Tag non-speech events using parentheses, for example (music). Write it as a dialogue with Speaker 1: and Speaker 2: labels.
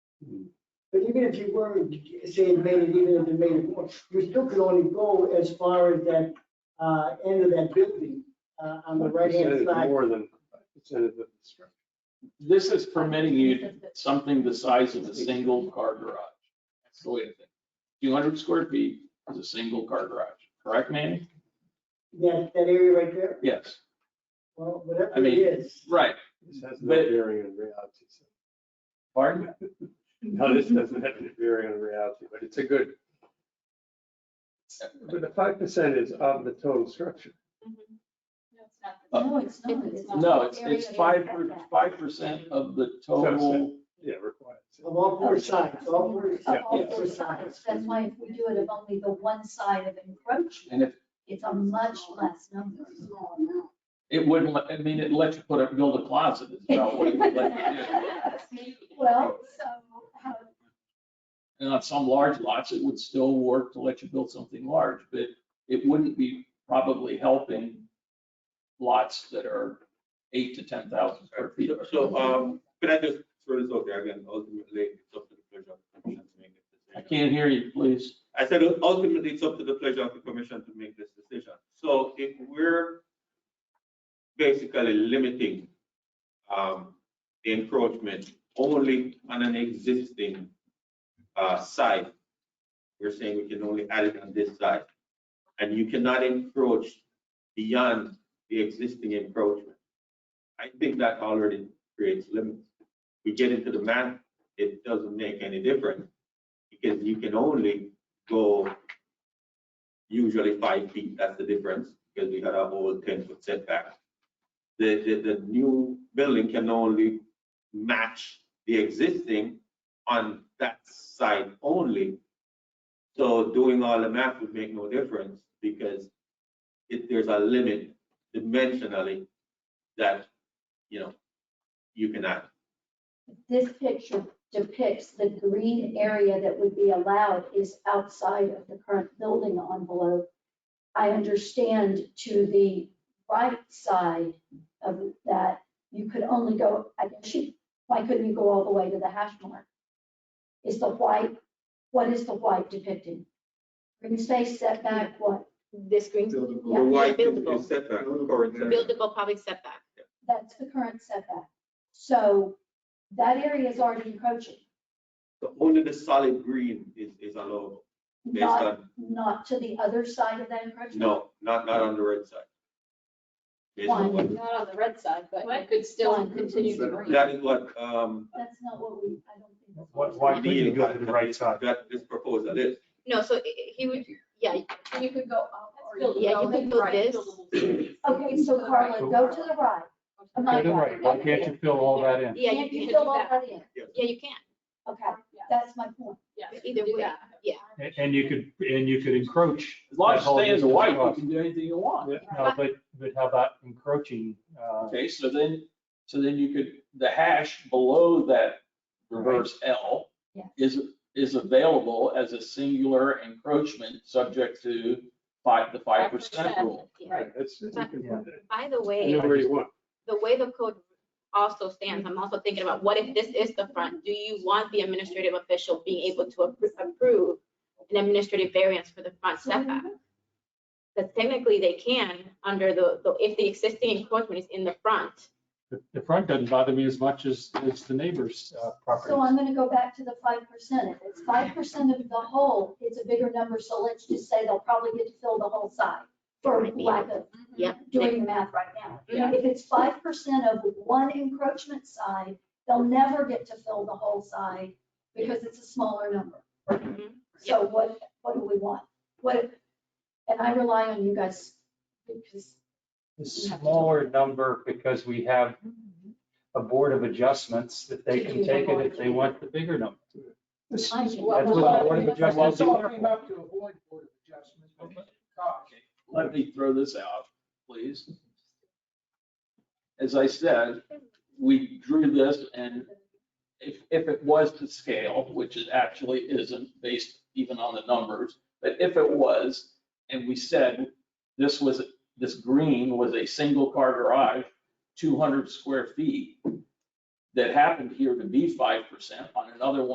Speaker 1: But even if you were, say, it made it, even if it made it more, you still could only go as far as that, uh, end of that building, uh, on the right-hand
Speaker 2: Percentage
Speaker 1: side.
Speaker 2: More than, percentage of the structure.
Speaker 3: This is permitting you something the size of a single car garage. That's the way to think. Two hundred square feet is a single car garage, correct, Manny?
Speaker 1: That, that area right there,
Speaker 3: Yes,
Speaker 1: well, whatever
Speaker 3: I
Speaker 1: it
Speaker 3: mean-
Speaker 1: is.
Speaker 3: right.
Speaker 2: This has no
Speaker 3: But-
Speaker 2: bearing on reality. so.
Speaker 3: Pardon?
Speaker 2: No, this doesn't have any bearing on reality, but it's a good. But the five percent is of the total structure.
Speaker 4: No, it's not. not.
Speaker 3: Uh, No, it's, it's
Speaker 4: Area
Speaker 3: five,
Speaker 4: of setback.
Speaker 3: five percent of the total.
Speaker 2: Yeah, required.
Speaker 1: Of all four sides, all four,
Speaker 4: Of
Speaker 1: all
Speaker 4: all
Speaker 1: four
Speaker 4: four
Speaker 1: sides.
Speaker 4: sides. That's why if we do it of only the one side of encroachment,
Speaker 3: And if,
Speaker 4: it's a much less number.
Speaker 3: it wouldn't, let- I mean, it let you put up, build a closet, is about what it would let you do.
Speaker 4: (laughs) Well, so how,
Speaker 3: And on some large lots, it would still work to let you build something large, but it wouldn't be probably helping lots that are eight to ten thousand square feet.
Speaker 5: So, um, can I just throw this out there again, ultimately, it's up to the pleasure of the commission to make this
Speaker 3: I
Speaker 5: decision.
Speaker 3: can't hear you, please.
Speaker 5: I said ultimately, it's up to the pleasure of the commission to make this decision. So if we're basically limiting, um, the encroachment only on an existing, uh, site, we're saying we can only add it on this side, and you cannot encroach beyond the existing encroachment. I think that already creates limits. We get into the math, it doesn't make any difference, because you can only go usually five feet, that's the difference, because we had a whole ten foot setback. The, the, the new building can only match the existing on that side only. So doing all the math would make no difference, because if there's a limit dimensionally that, you know, you can add.
Speaker 4: this picture depicts the green area that would be allowed is outside of the current building envelope. I understand to the right side of that, you could only go, I guess, you- why couldn't you go all the way to the hash mark? Is the white, what is the white depicting? Green space setback, what?
Speaker 6: This green,
Speaker 5: The
Speaker 4: Yeah,
Speaker 5: white is
Speaker 6: buildable.
Speaker 5: setback, current setback.
Speaker 6: buildable public setback.
Speaker 4: That's the current setback. So that area is already encroaching,
Speaker 5: So Only the solid green is, is allowed, based
Speaker 4: not
Speaker 5: on,
Speaker 4: not to the other side of that encroachment?
Speaker 5: no, not, not on the red side. Based on
Speaker 4: One,
Speaker 5: what-
Speaker 6: Not on the red side, but
Speaker 4: What?
Speaker 6: it could still
Speaker 4: One.
Speaker 6: continue to green.
Speaker 5: That is what, um,
Speaker 4: that's not what we, I don't think. that's
Speaker 7: Why-
Speaker 4: what
Speaker 7: why
Speaker 4: we-
Speaker 7: couldn't you go to the right side?
Speaker 5: that this proposal is.
Speaker 6: No, so i- i- he would, yeah,
Speaker 8: And you could go up or you could
Speaker 6: yeah,
Speaker 8: go
Speaker 6: you
Speaker 8: like
Speaker 6: could go
Speaker 8: right,
Speaker 6: this.
Speaker 4: Okay, so Carla, go to the right. I'm
Speaker 7: Go
Speaker 4: not
Speaker 7: to the right, why can't you fill all that in?
Speaker 6: Yeah, you
Speaker 4: Can't you
Speaker 6: can
Speaker 4: fill all
Speaker 6: do that.
Speaker 4: that in?
Speaker 6: Yeah, you can.
Speaker 4: Okay, that's my point.
Speaker 8: Yeah,
Speaker 6: But either
Speaker 8: do
Speaker 6: way,
Speaker 8: that.
Speaker 6: yeah.
Speaker 7: And- And you could, and you could encroach.
Speaker 3: As long
Speaker 7: that
Speaker 3: as you
Speaker 7: whole
Speaker 3: stay in the
Speaker 7: distance
Speaker 3: white, you
Speaker 7: across.
Speaker 3: can do anything you want.
Speaker 7: Yeah, No, but, but how about encroaching, uh,
Speaker 3: Okay, so then, so then you could, the hash below that reverse L
Speaker 4: Yeah.
Speaker 3: is, is available as a singular encroachment subject to five, the five percent
Speaker 6: 5%.
Speaker 3: rule.
Speaker 6: Yeah.
Speaker 2: Right, That's, you can put that
Speaker 6: By the way,
Speaker 2: anywhere you want.
Speaker 6: the way the code also stands, I'm also thinking about what if this is the front? Do you want the administrative official being able to appro- approve an administrative variance for the front setback? Because technically they can under the, the- if the existing encroachment is in the front,
Speaker 7: the- the front doesn't bother me as much as, as the neighbor's uh,
Speaker 4: So I'm
Speaker 7: property.
Speaker 4: gonna go back to the five percent. If it's five percent of the whole, it's a bigger number, so let's just say they'll probably get to fill the whole side for lack of
Speaker 6: Mm-hmm. Yep. Mm-hmm.
Speaker 4: doing the math right now.
Speaker 6: Yeah.
Speaker 4: If it's five percent of one encroachment side, they'll never get to fill the whole side because it's a smaller number.
Speaker 6: Mhm.
Speaker 4: So what, what do we want? What, and I rely on you guys because
Speaker 7: The smaller number because we have a board of adjustments that they can take it if they want the bigger number. That's
Speaker 4: I think.
Speaker 7: what the board of adjustments is there for.
Speaker 9: to avoid board of adjustments, but it's cost.
Speaker 3: Let me throw this out, please. As I said, we drew this and if, if it was to scale, which it actually isn't based even on the numbers, but if it was, and we said this was, this green was a single car garage, two hundred square feet, that happened here to be five percent on another one.